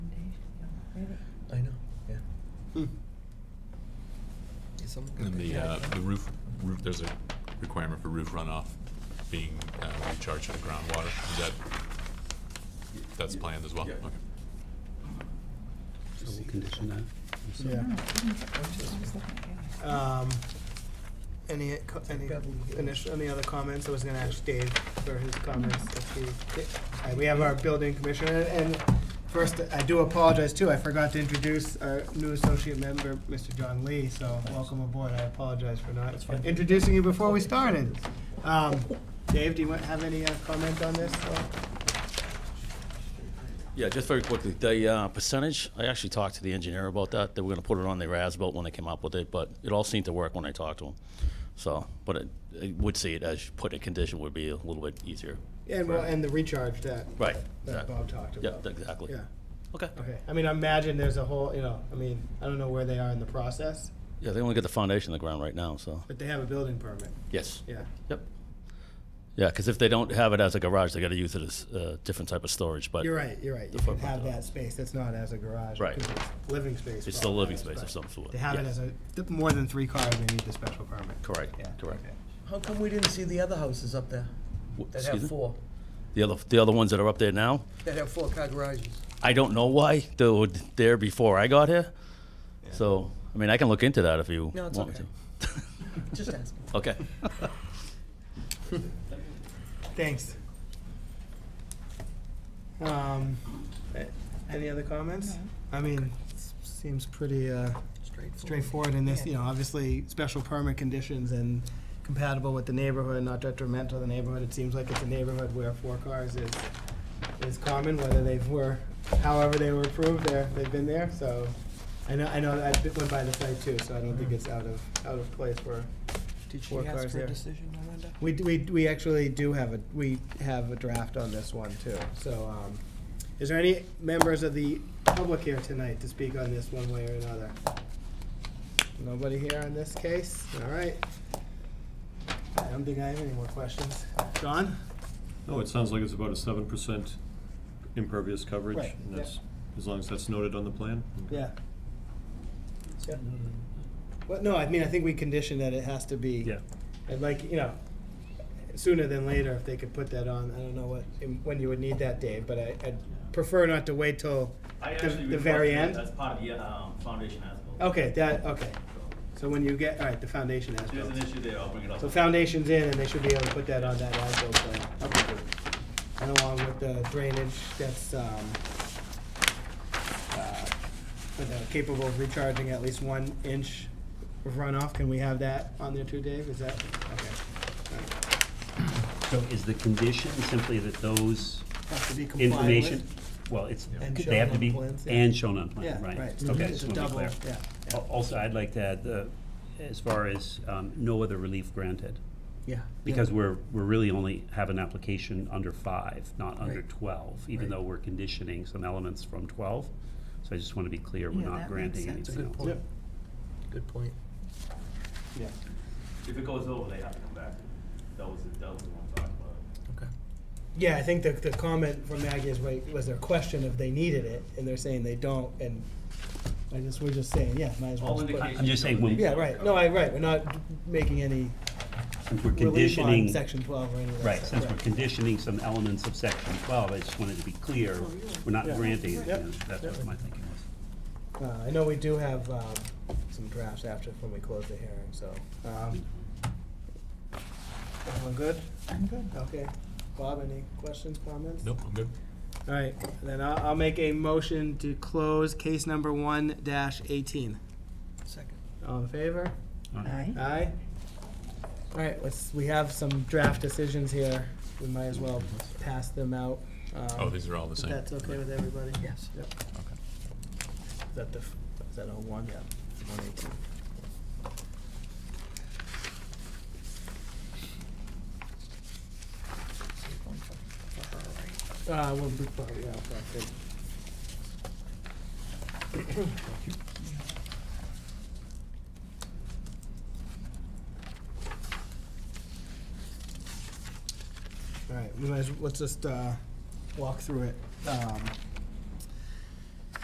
movie. I know, yeah. Hmm. Is someone gonna And pick the, that uh, up? the roof, roof, there's a requirement for roof runoff being uh, recharged on groundwater. Is that, that's planned as well? Yeah. Okay. So we'll condition that. also. Yeah. No, Oh, I didn't get- I was looking at yours. Um, any, co- any initial, any other comments? I was gonna ask Dave for his comments. if he- uh, We have our building commissioner, and first, I do apologize too, I forgot to introduce our new associate member, Mr. John Lee, so welcome aboard, I apologize for not fine. introducing you before we started. Um, Dave, do you want, have any uh, comment on this? or- Yeah, just very quickly, the uh, percentage, I actually talked to the engineer about that. They were going to put it on their as-built when they came up with it, but it all seemed to work when I talked to them. So, but it- I would see it as put in condition would be a little bit easier. And, well, and the recharge that, Right. that Bob talked Yeah, about. exactly. Yeah, Okay. okay. I mean, I imagine there's a whole, you know, I mean, I don't know where they are in the process, Yeah, they only got the foundation in the ground right now, so, but they have a building permit, yes. yeah. Yep. Yeah, because if they don't have it as a garage, they got to use it as a different type of storage, but You're right, you're right. You the can footprint have of it. that space, that's not as a garage. Right. because it's Living space. it's for still all living cars, space but of some sort. They have it Yes. as a, th- more than three cars, they need the special permit. Correct, Yeah, correct. okay. How come we didn't see the other houses up there W- that excuse have me? four, The other, the other ones that are up there now? that have four-car garages? I don't know why they were there before I got here. So, I mean, I can look into that if you No, it's want okay. me Just asking. to. Okay. Thanks. Um, a- any other comments? I mean, s- seems pretty, uh, straightforward in this, you know, obviously, special permit conditions and compatible with the neighborhood, not detrimental to the neighborhood. It seems like it's a neighborhood where four cars is, is common, whether they were, however they were approved, they're, they've been there, so. I know, I know, I went by the site too, so I don't think it's out of, out of place for Did she Four ask cars for a there. decision, I wonder? we, d- we, d- we actually do have a, we have a draft on this one too, so, um, is there any members of the public here tonight to speak on this one way or another? Nobody here on this case, all right. I don't think I have any more questions. John? No, it sounds like it's about a seven percent impervious coverage, Right, and yeah. that's, as long as that's noted on the plan. okay. Yeah. Yeah. Well, no, I mean, I think we condition that it has to be. Yeah. And like, you know, sooner than later, if they could put that on, I don't know what, when you would need that, Dave, but I, I'd prefer not to wait till I the, actually the very requested it end. As part of the, um, foundation as well. Okay, that, okay. So when you get, all right, the foundation has If there's built. an issue there, I'll bring it up. So foundation's in, and they should be able to put that on that as-built plan. Okay, good. And along with the drainage, that's, um, uh, for the capable of recharging at least one inch of runoff, can we have that on there too, Dave? Is that, okay. So is the condition simply that those Has to be compliant with. information, well, it's, And they shown have to on be, plans, yeah. and shown on Yeah, plan, right? right. Okay, It's just a want to be double, clear. yeah. Al- Also, I'd like to add, uh, as far as um, no other relief granted, Yeah. because we're, we're really only have an application under five, not under Right. twelve, even though we're conditioning some elements from twelve. So I just want to be clear, Yeah, we're that not makes granting sense. anything else. Yep, Good point. yeah. If it goes over, they have to come back. That was, that was the one talk about. Okay. Yeah, I think the, the comment from Maggie is, right, was their question if they needed it, and they're saying they don't, and I just, we're just saying, yeah, might as well. All just put- indications. I'm just saying show that when- they Yeah, right, no, I, right, we're not making any Since we're relief on conditioning, section twelve or any of that. right, stuff, since we're conditioning some elements of section twelve, I just wanted to be clear, we're not Oh, Yeah. granting, Yep. anything else. that's what my thinking was. Uh, I know we do have, um, some drafts after, when we close the hearing, so, um. Everyone good? I'm good. Okay. Bob, any questions, comments? Nope, I'm good. All right, then I'll, I'll make a motion to close case number one dash eighteen. Second. All in favor? Aye. Aye. All right, let's, we have some draft decisions here. We might as well pass them out. um, Oh, these are all the If same? that's okay with everybody? Yes. Yep. Okay. Is that the, f- is that all one? Yeah. One eighteen. Uh, we'll be, oh, yeah, okay, good. All right, we might, as- let's just, uh, walk through it. Um,